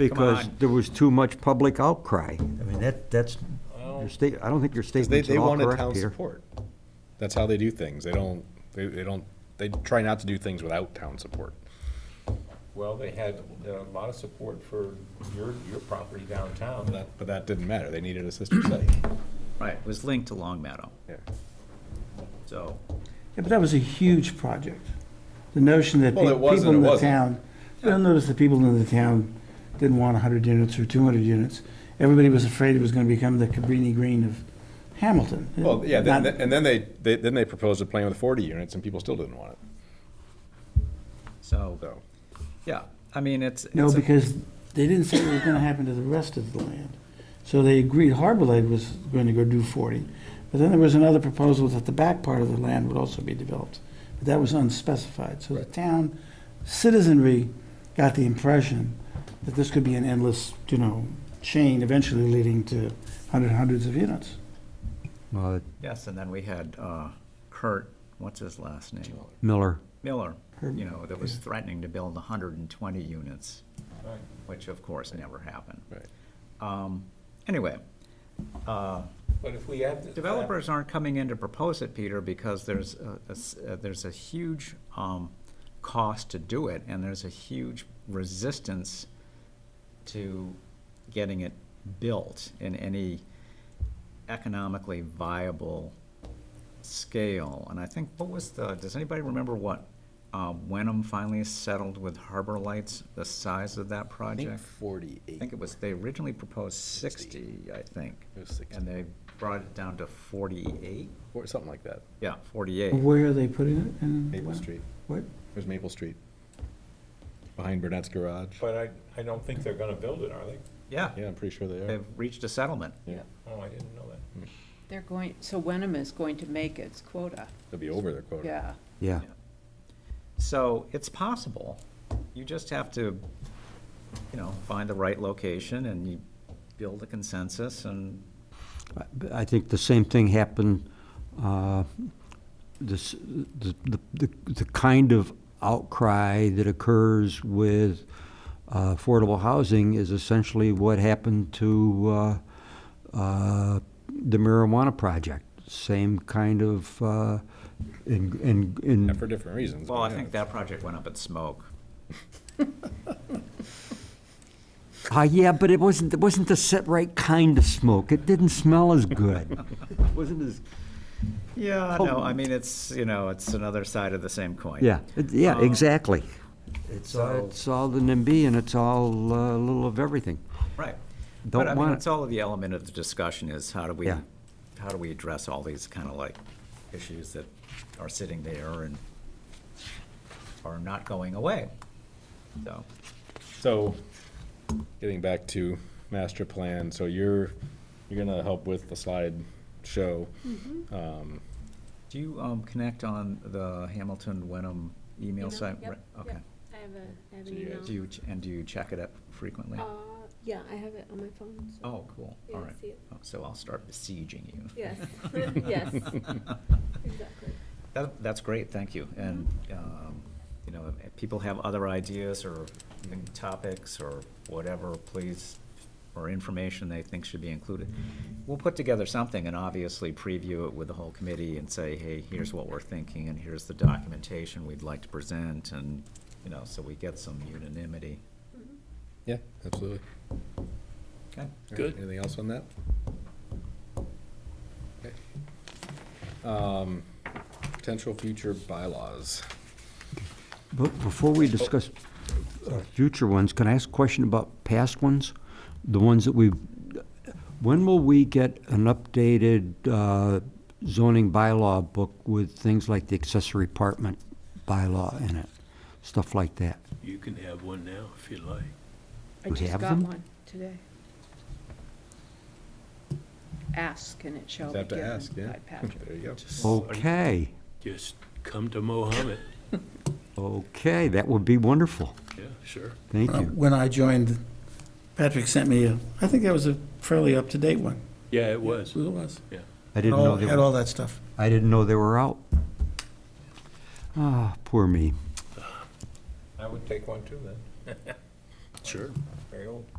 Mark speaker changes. Speaker 1: because
Speaker 2: on.
Speaker 1: there was too much public outcry. I mean, that, that's, your state, I don't think your
Speaker 3: Because Oh. they,
Speaker 1: statement's
Speaker 3: they
Speaker 1: at all
Speaker 3: wanted
Speaker 1: correct
Speaker 3: town
Speaker 1: here.
Speaker 3: support. That's how they do things. They don't, they, they don't, they try not to do things without town support.
Speaker 4: Well, they had uh, a lot of support for your, your property downtown.
Speaker 3: But that- but that didn't matter. They needed a sister city.
Speaker 2: Right, it was linked to Long Meadow,
Speaker 3: Yeah.
Speaker 2: so.
Speaker 5: Yeah, but that was a huge project. The notion that
Speaker 3: Well,
Speaker 5: pe-
Speaker 3: it wasn't,
Speaker 5: people in
Speaker 3: it
Speaker 5: the
Speaker 3: wasn't.
Speaker 5: town, I don't notice the people in the town didn't want 100 units or 200 units. Everybody was afraid it was going to become the Cabrini Green of Hamilton.
Speaker 3: Well, yeah,
Speaker 5: Not-
Speaker 3: then- and then they, they, then they proposed a plan with forty units and people still didn't want it,
Speaker 2: So,
Speaker 3: so.
Speaker 2: yeah, I mean, it's.
Speaker 5: No,
Speaker 2: it's a-
Speaker 5: because they didn't say what was going to happen to the rest of the land. So they agreed Harbor Light was going to go do 40. But then there was another proposal that the back part of the land would also be developed. But that was unspecified. So the town citizenry got the impression that this could be an endless, you know, chain eventually leading to hundred, hundreds of units.
Speaker 1: Uh,
Speaker 2: Yes, and then we had uh, Kurt, what's his last name?
Speaker 1: Miller,
Speaker 2: Miller,
Speaker 5: Herb.
Speaker 2: you know, that was threatening to build hundred and twenty units, which of course never happened.
Speaker 3: Right.
Speaker 2: Um, Anyway, uh,
Speaker 4: But if we had. the-
Speaker 2: developers aren't coming in to propose it, Peter, because there's, a- a s- uh, there's a huge um, cost to do it, and there's a huge resistance to getting it built in any economically viable scale. And I think, what was the, does anybody remember what uh, Wenham finally settled with Harbor Lights, the size of that project? I
Speaker 3: forty-eight.
Speaker 2: think it was, they originally proposed sixty, I think.
Speaker 3: It was 60.
Speaker 2: And they brought it down to forty-eight?
Speaker 3: Or something like that.
Speaker 2: Yeah, forty-eight.
Speaker 5: Where are they putting it? And
Speaker 3: Maple
Speaker 5: what-
Speaker 3: Street.
Speaker 5: What?
Speaker 3: It was Maple Street. Behind Burnett's Garage.
Speaker 4: But I, I don't think they're gonna build it, are they?
Speaker 2: Yeah,
Speaker 3: Yeah, I'm pretty sure they are.
Speaker 2: they've reached a settlement.
Speaker 3: Yeah,
Speaker 4: Oh, I didn't know that.
Speaker 6: They're going, so Wenham is going to make its quota,
Speaker 3: they'll be over their quota.
Speaker 6: yeah.
Speaker 1: yeah.
Speaker 2: So it's possible. You just have to, you know, find the right location and you build a consensus and,
Speaker 1: I- I think the same thing happened, uh, this, the, the- the, the kind of outcry that occurs with uh, affordable housing is essentially what happened to, uh, uh, the marijuana project. Same kind of, uh, in, in,
Speaker 3: Yeah,
Speaker 1: in,
Speaker 3: For different reasons.
Speaker 2: well,
Speaker 3: but
Speaker 2: I
Speaker 3: yeah,
Speaker 2: think that project went up in smoke.
Speaker 1: Ah, yeah, but it wasn't, it wasn't the set right kind of smoke. It didn't smell as good. It Wasn't as,
Speaker 2: Yeah, no, I mean, it's, you know, it's another side of the same coin.
Speaker 1: yeah, it- yeah,
Speaker 2: Um,
Speaker 1: exactly. It's all,
Speaker 2: so-
Speaker 1: it's all the NIMBY and it's all uh, a little of everything.
Speaker 2: Right.
Speaker 1: Don't
Speaker 2: But I mean,
Speaker 1: want it.
Speaker 2: it's all of the element of the discussion is how do we,
Speaker 1: Yeah.
Speaker 2: how do we address all these kind of like issues that are sitting there and are not going away? So,
Speaker 3: So, getting back to master plan, so you're, you're gonna help with the slide show. Um,
Speaker 2: do you, um, connect on the Hamilton Wenham email
Speaker 7: Email?
Speaker 2: site?
Speaker 7: Yep,
Speaker 2: Right,
Speaker 7: yep.
Speaker 2: Okay.
Speaker 7: I have a, I have
Speaker 3: So
Speaker 7: an
Speaker 3: you
Speaker 7: email.
Speaker 2: Do you, ch- and do you check it up frequently?
Speaker 7: Uh, yeah, I have it on my phone. so-
Speaker 2: Oh, cool,
Speaker 7: Yeah,
Speaker 2: all
Speaker 7: I
Speaker 2: right.
Speaker 7: see it.
Speaker 2: Oh, So I'll start besieging you.
Speaker 7: Yes, yes, exactly.
Speaker 2: That, that's great, thank you. And, um, you know, if people have other ideas or even topics or whatever, please, or information they think should be included. We'll put together something and obviously preview it with the whole committee and say, hey, here's what we're thinking and here's the documentation we'd like to present and, you know, so we get some unanimity.
Speaker 3: yeah, absolutely.
Speaker 2: Okay?
Speaker 3: Good. Anything else on that? Okay. Um, Potential future bylaws.
Speaker 1: But before we discuss uh, future ones, can I ask a question about past ones? The ones that we've, when will we get an updated uh, zoning bylaw book with things like the accessory apartment bylaw in it? Stuff like that.
Speaker 8: You can have one now if you like.
Speaker 7: I
Speaker 1: We
Speaker 7: just
Speaker 1: have
Speaker 7: got
Speaker 1: them?
Speaker 7: one today. Ask and it
Speaker 3: Just
Speaker 7: shall be
Speaker 3: have to
Speaker 7: given
Speaker 3: ask, yeah.
Speaker 7: by Patrick.
Speaker 3: There you go.
Speaker 1: Okay,
Speaker 8: Just come to Mohammed.
Speaker 1: okay, that would be wonderful.
Speaker 8: Yeah, sure.
Speaker 1: Thank you.
Speaker 5: Uh, When I joined, Patrick sent me a, I think that was a fairly up-to-date one.
Speaker 8: Yeah, it was.
Speaker 5: It was.
Speaker 1: I didn't know they
Speaker 5: Had
Speaker 1: were,
Speaker 5: all that stuff.
Speaker 1: I didn't know they were out. Ah, poor me.
Speaker 4: I would take one too then.
Speaker 8: Sure.
Speaker 4: very old.